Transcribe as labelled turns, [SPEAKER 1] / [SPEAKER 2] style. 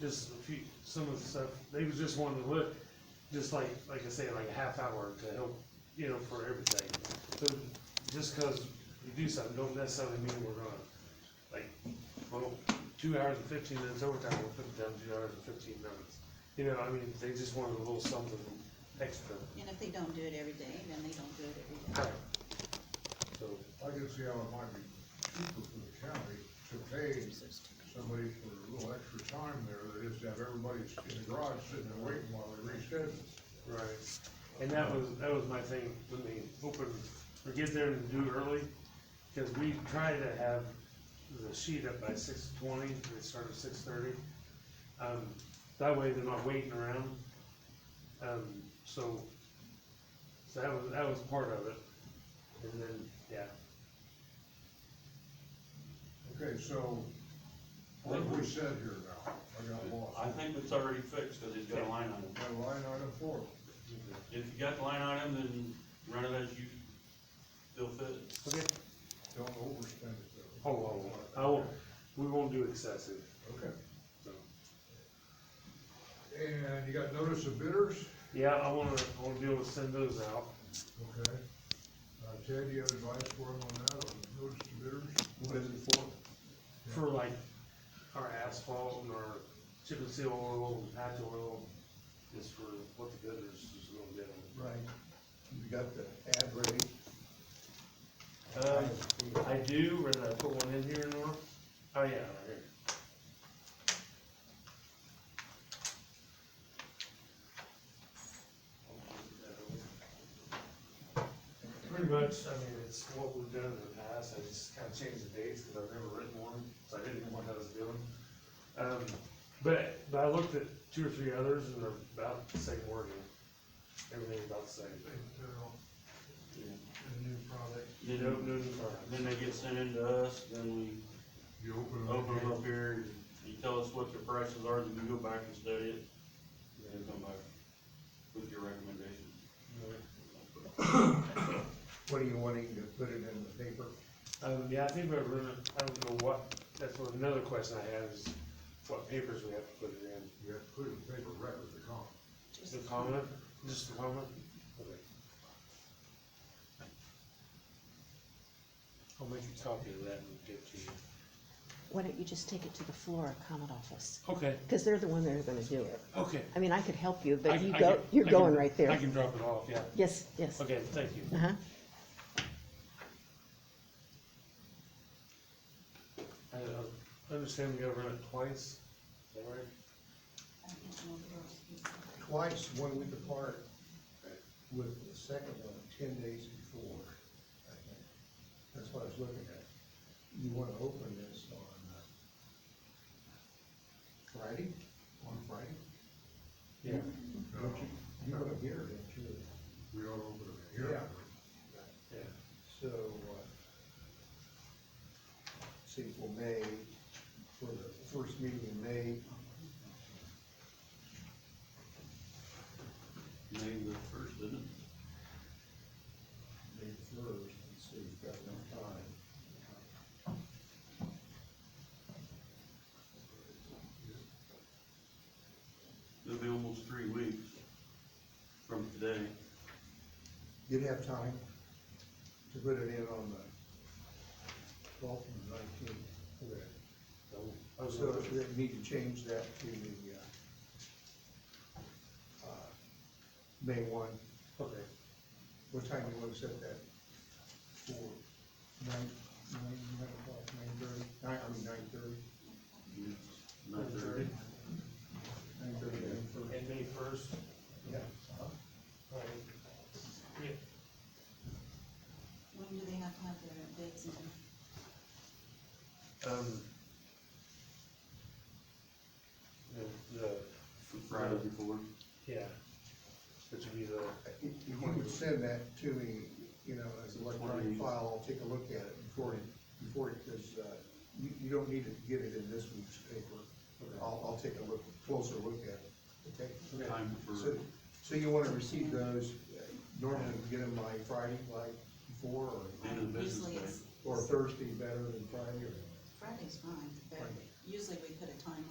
[SPEAKER 1] just a few, some of the stuff, they was just wanting to look, just like, like I say, like a half hour to help, you know, for everything. So just cause you do something, don't necessarily mean we're gonna, like, well, two hours and fifteen minutes overtime, we'll put it down to two hours and fifteen minutes. You know, I mean, they just wanted a little something extra.
[SPEAKER 2] And if they don't do it every day, then they don't do it every day.
[SPEAKER 1] So,
[SPEAKER 3] I can see how it might be cheaper for the county to pay somebody for a little extra time there, that is to have everybody in the garage sitting there waiting while they reschedule.
[SPEAKER 1] right, and that was, that was my thing, when they open, or get there and do it early, cause we try to have the sheet up by six twenty, they start at six thirty. Um, that way they're not waiting around, um, so, so that was, that was part of it, and then, yeah.
[SPEAKER 3] Okay, so what have we said here now? I got lost.
[SPEAKER 4] I think it's already fixed, cause he's got a line item.
[SPEAKER 3] Got a line item four.
[SPEAKER 4] If you got the line item, then run it as you feel fit.
[SPEAKER 1] Okay,
[SPEAKER 3] Don't overspend it though.
[SPEAKER 1] oh, oh, oh, I won't, we won't do excessive,
[SPEAKER 3] Okay.
[SPEAKER 1] so.
[SPEAKER 3] And you got notice of bidders?
[SPEAKER 1] Yeah, I wanna, I wanna be able to send those out.
[SPEAKER 3] Okay. Uh, Ted, you have advice for him on that, on notice to bidders?
[SPEAKER 5] What is it for?
[SPEAKER 1] for like our asphalt and our chip and seal oil and patch oil, is for what the bidders is gonna bid on.
[SPEAKER 5] Right. You got the ad ready?
[SPEAKER 1] Um, I do, where did I put one in here, Nora? Oh, yeah, right here. Pretty much, I mean, it's what we've done in the past, I just kinda changed the dates, cause I've never written one, so I didn't know what I was doing. Um, but, but I looked at two or three others and they're about the same wording, everything's about the same.
[SPEAKER 4] Then,
[SPEAKER 1] No, no, new product.
[SPEAKER 4] then they get sent in to us, then
[SPEAKER 3] You open
[SPEAKER 4] we
[SPEAKER 3] it
[SPEAKER 4] open them up here, and you tell us what their prices are, then you go back and study it, and come back with your recommendation.
[SPEAKER 5] What are you wanting to put it in the paper?
[SPEAKER 1] Um, yeah, I think we're, gonna- I don't know what, that's what another question I have is what papers we have to put it in.
[SPEAKER 3] You have to put it in paper right with the comp.
[SPEAKER 1] The comment, just the comment? Okay. I'll make a copy of that and get to you.
[SPEAKER 6] Why don't you just take it to the Flora Comet office?
[SPEAKER 1] Okay,
[SPEAKER 6] Because they're the one that are gonna do it.
[SPEAKER 1] okay.
[SPEAKER 6] I mean, I could help you,
[SPEAKER 1] I-
[SPEAKER 6] but you
[SPEAKER 1] I
[SPEAKER 6] go,
[SPEAKER 1] can-
[SPEAKER 6] you're
[SPEAKER 1] I can-
[SPEAKER 6] going right
[SPEAKER 1] I
[SPEAKER 6] there.
[SPEAKER 1] can drop it off, yeah.
[SPEAKER 6] Yes, yes.
[SPEAKER 1] Okay, thank you.
[SPEAKER 6] Uh-huh.
[SPEAKER 1] I uh, understand we gotta run it twice, is that right?
[SPEAKER 5] Twice, one week apart, with the second one ten days before. I think. That's what I was looking at. You wanna open this on uh, Friday, on Friday?
[SPEAKER 1] Yeah.
[SPEAKER 5] Don't you, you wanna hear it, don't you?
[SPEAKER 3] We all open it here.
[SPEAKER 5] Yeah.
[SPEAKER 1] Yeah,
[SPEAKER 5] So, uh, see, for May, for the first meeting in May,
[SPEAKER 4] Maybe the first, isn't it?
[SPEAKER 5] May first, and see, we've got enough time.
[SPEAKER 4] It'll be almost three weeks from today.
[SPEAKER 5] You'd have time to put it in on the twelfth and nineteenth.
[SPEAKER 1] so, I was
[SPEAKER 5] So
[SPEAKER 1] gonna-
[SPEAKER 5] we need to change that to the, uh, uh, May one.
[SPEAKER 1] okay.
[SPEAKER 5] What time do you wanna set that? For nine, nine, nine o'clock, nine thirty, nine, I mean, nine thirty?
[SPEAKER 4] Not
[SPEAKER 5] Nine
[SPEAKER 4] there.
[SPEAKER 5] thirty, nine thirty.
[SPEAKER 1] And May first?
[SPEAKER 5] Yeah.
[SPEAKER 1] Right. Yeah,
[SPEAKER 2] When do they have to have their bids in?
[SPEAKER 1] Um. The, the,
[SPEAKER 4] From Friday before.
[SPEAKER 1] yeah, which would be the,
[SPEAKER 5] If if you would send that to me, you know, as an electronic file, I'll take a look at it before, before, because, uh, you, you don't need to get it in this week's paper. I'll, I'll take a look, closer look at it, okay?
[SPEAKER 4] Time
[SPEAKER 5] So,
[SPEAKER 4] for,
[SPEAKER 5] so you wanna receive those, uh, normally you get them by Friday, like before,
[SPEAKER 4] end of business
[SPEAKER 2] Usually
[SPEAKER 4] day.
[SPEAKER 2] it's,
[SPEAKER 5] or, or Thursday better than Friday, or?
[SPEAKER 2] Friday's fine, but usually we put a time on